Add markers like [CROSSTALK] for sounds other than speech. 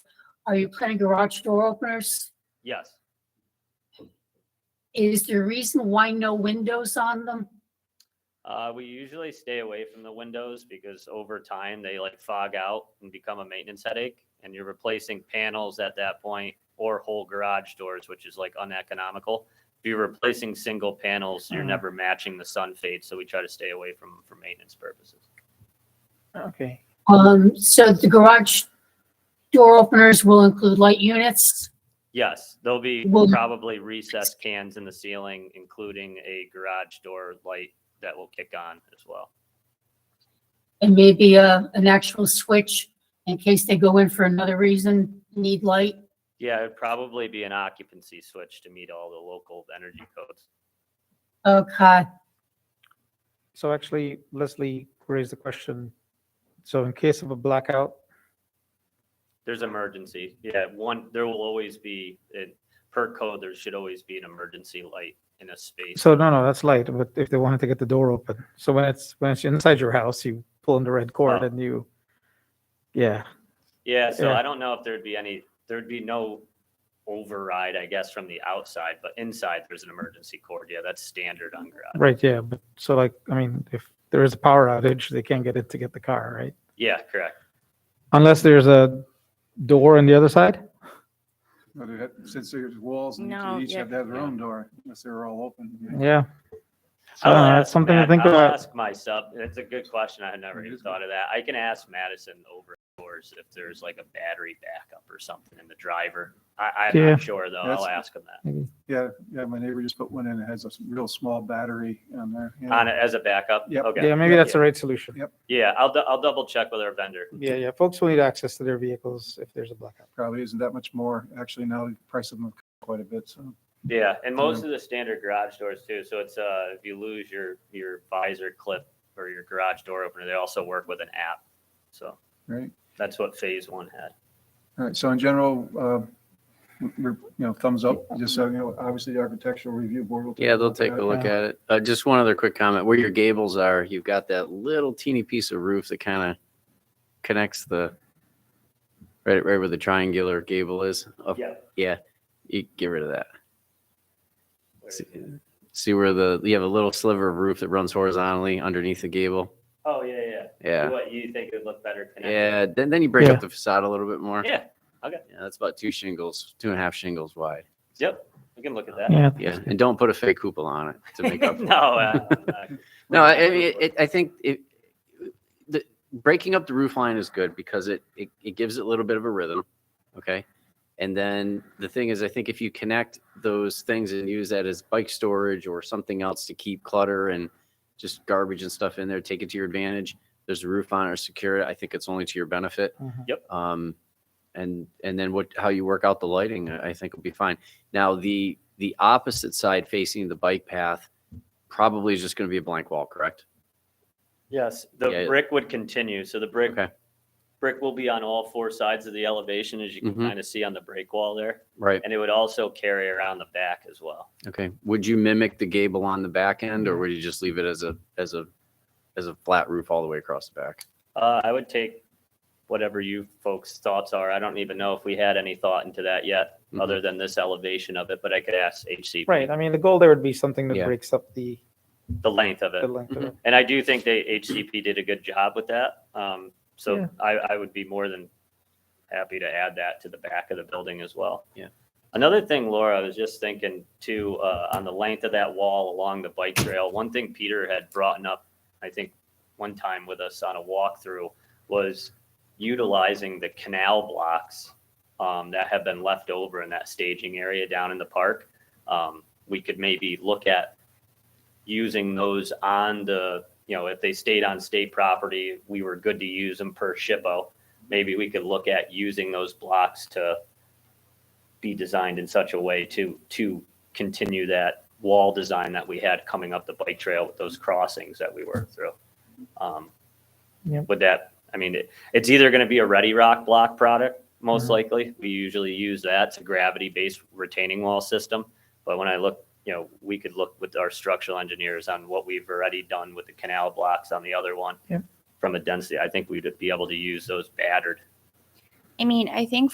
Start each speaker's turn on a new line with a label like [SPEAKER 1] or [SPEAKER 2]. [SPEAKER 1] Are you planning garage door openers?
[SPEAKER 2] Yes,
[SPEAKER 1] Is there a reason why no windows on them?
[SPEAKER 2] uh, we usually stay away from the windows because over time they like fog out and become a maintenance headache. And you're replacing panels at that point or whole garage doors, which is like uneconomical. If you're replacing single panels, you're
[SPEAKER 3] Mhm.
[SPEAKER 2] never matching the sun fade. So we try to stay away from 'em for maintenance purposes.
[SPEAKER 3] Okay.
[SPEAKER 1] Um, so the garage door openers will include light units.
[SPEAKER 2] Yes, there'll be
[SPEAKER 1] Well-
[SPEAKER 2] probably recessed cans in the ceiling, including a garage door light that will kick on as well.
[SPEAKER 1] And maybe a, an actual switch in case they go in for another reason, need light.
[SPEAKER 2] Yeah, it'd probably be an occupancy switch to meet all the local energy codes.
[SPEAKER 1] Okay,
[SPEAKER 3] So actually, Leslie raised the question. So in case of a blackout,
[SPEAKER 2] There's emergency. Yeah, one, there will always be, it- per code, there should always be an emergency light in a space.
[SPEAKER 3] so no, no, that's light. But if they wanted to get the door open, so when it's when it's inside your house, you pull in the red cord
[SPEAKER 2] Oh.
[SPEAKER 3] and you, yeah,
[SPEAKER 2] Yeah, so
[SPEAKER 3] yeah.
[SPEAKER 2] I don't know if there'd be any, there'd be no override, I guess, from the outside, but inside there's an emergency cord. Yeah, that's standard on garage.
[SPEAKER 3] right, yeah. But so like, I mean, if there is a power outage, they can't get in to get the car, right?
[SPEAKER 2] Yeah, correct.
[SPEAKER 3] Unless there's a door on the other side.
[SPEAKER 4] But it had- since there's walls and
[SPEAKER 5] No,
[SPEAKER 4] each
[SPEAKER 5] yeah.
[SPEAKER 4] have to have their
[SPEAKER 2] Yeah.
[SPEAKER 4] own door, unless they're all open.
[SPEAKER 3] Yeah. So
[SPEAKER 2] I'll
[SPEAKER 3] Uh, that's
[SPEAKER 2] ask
[SPEAKER 3] something to
[SPEAKER 2] Matt-
[SPEAKER 3] think
[SPEAKER 2] I'll
[SPEAKER 3] about.
[SPEAKER 2] Ask my sub, that's a good question. I had never
[SPEAKER 4] It
[SPEAKER 2] even
[SPEAKER 4] is good.
[SPEAKER 2] thought of that. I can ask Madison over doors if there's like a battery backup or something in the driver. I, I'm
[SPEAKER 3] Yeah.
[SPEAKER 2] not sure though.
[SPEAKER 4] That's-
[SPEAKER 2] I'll ask him that.
[SPEAKER 4] Yeah, yeah, my neighbor just put one in, it has a s- real small battery on there. yeah.
[SPEAKER 2] On it as a backup?
[SPEAKER 4] Yep.
[SPEAKER 2] Okay.
[SPEAKER 3] Yeah, maybe
[SPEAKER 2] Yeah.
[SPEAKER 3] that's the right solution.
[SPEAKER 2] Yeah, I'll, dou- I'll double check with our vendor.
[SPEAKER 3] Yeah, yeah. Folks will need access to their vehicles if there's a blackout.
[SPEAKER 4] Probably isn't that much more, actually now the price of them have come up quite a bit, so.
[SPEAKER 2] Yeah, and
[SPEAKER 6] Mm-hmm.
[SPEAKER 2] most of the standard garage doors too. So it's uh, if you lose your your visor clip or your garage door opener, they also work with an app. So
[SPEAKER 4] Right,
[SPEAKER 2] that's what Phase One had.
[SPEAKER 4] all right, so in general, uh, we're, you know, thumbs up, just so, you know, obviously the architectural review board will.
[SPEAKER 6] Yeah, they'll take a look
[SPEAKER 3] yeah.
[SPEAKER 6] at it. Uh, just one other quick comment. Where your gables are, you've got that little teeny piece of roof that kind of connects the right, right where the triangular gable is. Up,
[SPEAKER 2] Yeah.
[SPEAKER 6] you get rid of that. See, see where the you have a little sliver of roof that runs horizontally underneath the gable.
[SPEAKER 2] Oh yeah, yeah.
[SPEAKER 6] Yeah,
[SPEAKER 2] What you think would look better? connected.
[SPEAKER 6] yeah. Then then you break
[SPEAKER 3] Yeah.
[SPEAKER 6] up the facade a little bit more.
[SPEAKER 2] Yeah.
[SPEAKER 6] Yeah, that's about two shingles, two and a half shingles wide.
[SPEAKER 2] Yep. We can look at that. [LAUGHS]
[SPEAKER 3] Yeah.
[SPEAKER 6] Yeah, and don't put a fake cupola on it to make up. for it.
[SPEAKER 2] no, uh, uh,
[SPEAKER 6] No, I I mean, it, it, I think it, the breaking up the roof line is good because it, it it gives it a little bit of a rhythm, okay. And then the thing is, I think if you connect those things and use that as bike storage or something else to keep clutter and just garbage and stuff in there, take it to your advantage. There's a roof on it or secure it. I think it's only to your benefit.
[SPEAKER 3] Mhm.
[SPEAKER 2] Yep.
[SPEAKER 6] Um, and and then what how you work out the lighting, I I think will be fine. Now the the opposite side facing the bike path probably is just going to be a blank wall, correct?
[SPEAKER 2] yes, the
[SPEAKER 6] Yeah.
[SPEAKER 2] brick would continue. So the brick
[SPEAKER 6] Okay.
[SPEAKER 2] brick will be on all four sides of the elevation, as you can
[SPEAKER 6] Mhm.
[SPEAKER 2] kind of see on the break wall there,
[SPEAKER 6] Right.
[SPEAKER 2] and it would also carry around the back as well.
[SPEAKER 6] Okay. Would you mimic the gable on the back end, or would you just leave it as a as a as a flat roof all the way across the back?
[SPEAKER 2] Uh, I would take whatever you folks' thoughts are. I don't even know if we had any thought into that yet,
[SPEAKER 6] Mhm.
[SPEAKER 2] other than this elevation of it. But I could ask HCP
[SPEAKER 3] Right. I mean, the goal there would be something that
[SPEAKER 6] Yeah.
[SPEAKER 3] breaks up the,
[SPEAKER 2] the length of it.
[SPEAKER 3] the length of it.
[SPEAKER 2] And I do think they HCP did a good job with that. Um, so
[SPEAKER 3] Yeah.
[SPEAKER 2] I, I would be more than happy to add that to the back of the building as well.
[SPEAKER 6] Yeah.
[SPEAKER 2] Another thing, Laura, I was just thinking too, uh, on the length of that wall along the bike trail, one thing Peter had brought up, I think, one time with us on a walkthrough was utilizing the canal blocks um, that have been left over in that staging area down in the park. Um, we could maybe look at using those on the, you know, if they stayed on state property, we were good to use them per shippo. Maybe we could look at using those blocks to be designed in such a way to, to continue that wall design that we had coming up the bike trail with those crossings that we worked through. Um,
[SPEAKER 3] Yep.
[SPEAKER 2] Would that, I mean, it, it's either going to be a ready rock block product, most
[SPEAKER 3] Mhm.
[SPEAKER 2] likely. We usually use that. It's a gravity based retaining wall system. But when I look you know, we could look with our structural engineers on what we've already done with the canal blocks on the other one.
[SPEAKER 3] Yep.
[SPEAKER 2] From a density, I think we'd be able to use those battered
[SPEAKER 5] I mean, I think